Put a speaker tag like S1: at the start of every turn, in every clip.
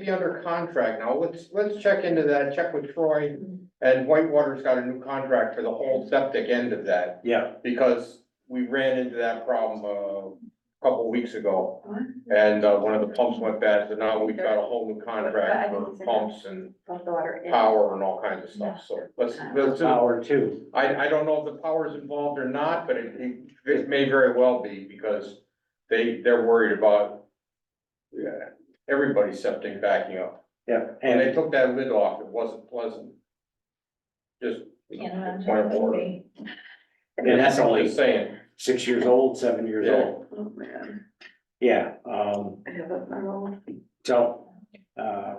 S1: be under contract now, let's, let's check into that, check with Troy. And Whitewater's got a new contract for the whole septic end of that,
S2: Yeah,
S1: because we ran into that problem uh, a couple weeks ago. And uh, one of the pumps went bad, so now we've got a whole new contract for pumps and
S3: Both water and.
S1: power and all kinds of stuff, so let's, let's,
S2: power two.
S1: I, I don't know if the power's involved or not, but it, it- it may very well be, because they, they're worried about yeah, everybody's septic backing up.
S2: Yeah,
S1: And they
S2: and
S1: took that lid off, it wasn't pleasant. Just.
S3: Can't
S1: point of order.
S2: and that's only
S1: Just saying,
S2: six years old, seven years
S1: Yeah.
S2: old.
S3: Oh, man.
S2: Yeah, um,
S3: I have a, my own.
S2: so, uh,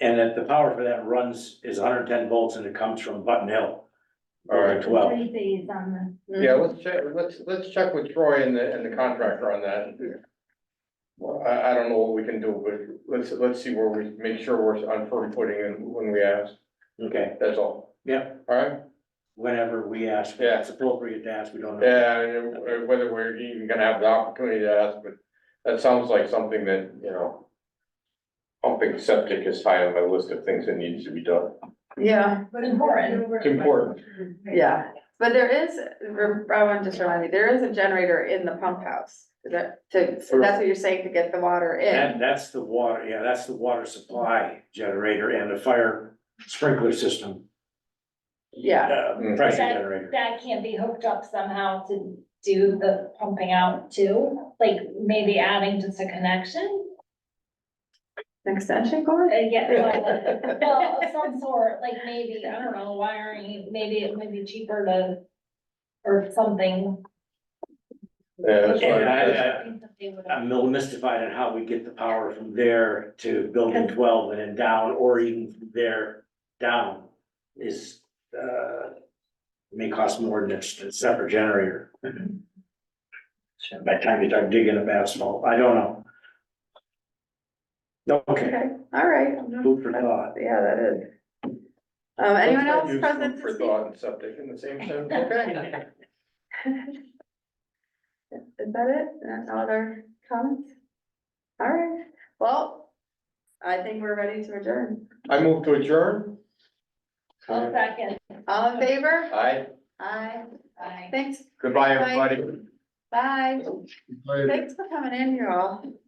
S2: and that the power for that runs is hundred and ten volts and it comes from Button Hill.
S1: All right.
S2: Building Twelve.
S4: Three days on
S1: yeah, let's check, let's, let's check with Troy and the, and the contractor on that. Well, I, I don't know what we can do, but let's, let's see where we, make sure we're on firm footing and when we ask,
S2: Okay,
S1: that's all.
S2: Yeah.
S1: All right,
S2: whenever we ask,
S1: Yeah.
S2: it's appropriate to ask, we don't know.
S1: yeah, and uh, whether we're even gonna have the opportunity to ask, but that sounds like something that, you know. Pumping septic is high on my list of things that needs to be done,
S3: Yeah,
S4: the.
S3: Important.
S1: it's important.
S3: yeah, but there is, re- Robin just reminded me, there is a generator in the pump house. Is that, to, so that's what you're saying, to get the water in?
S2: And that's the water, yeah, that's the water supply generator and the fire sprinkler system,
S3: Yeah,
S2: uh,
S1: Mm.
S2: pressure generator.
S4: That can be hooked up somehow to do the pumping out too, like maybe adding just a connection?
S3: an extension
S4: Uh,
S3: cord?
S4: yeah, well, well, of some sort, like maybe, I don't know, wiring, maybe it would be cheaper to, or something.
S1: Yeah, that's
S2: And I-
S1: why-
S2: I- I'm a little mystified on how we get the power from there to building twelve and then down, or even from there down is, uh, may cost more than just a separate generator. By the time you start digging up asphalt, I don't know. Okay,
S3: Okay, all right.
S2: food for thought.
S3: Yeah, that is. Um, anyone else
S1: Use food
S3: present
S1: For
S3: to speak?
S1: thought and subject in the same sentence, okay?
S3: Is that it? That's all our comments? All right, well, I think we're ready to adjourn.
S1: I move to adjourn,
S4: I'll second,
S3: All in favor?
S1: aye,
S3: Aye.
S4: Aye.
S3: Thanks,
S1: goodbye,
S3: Bye.
S1: everybody.
S3: bye. Thanks for coming in, you all.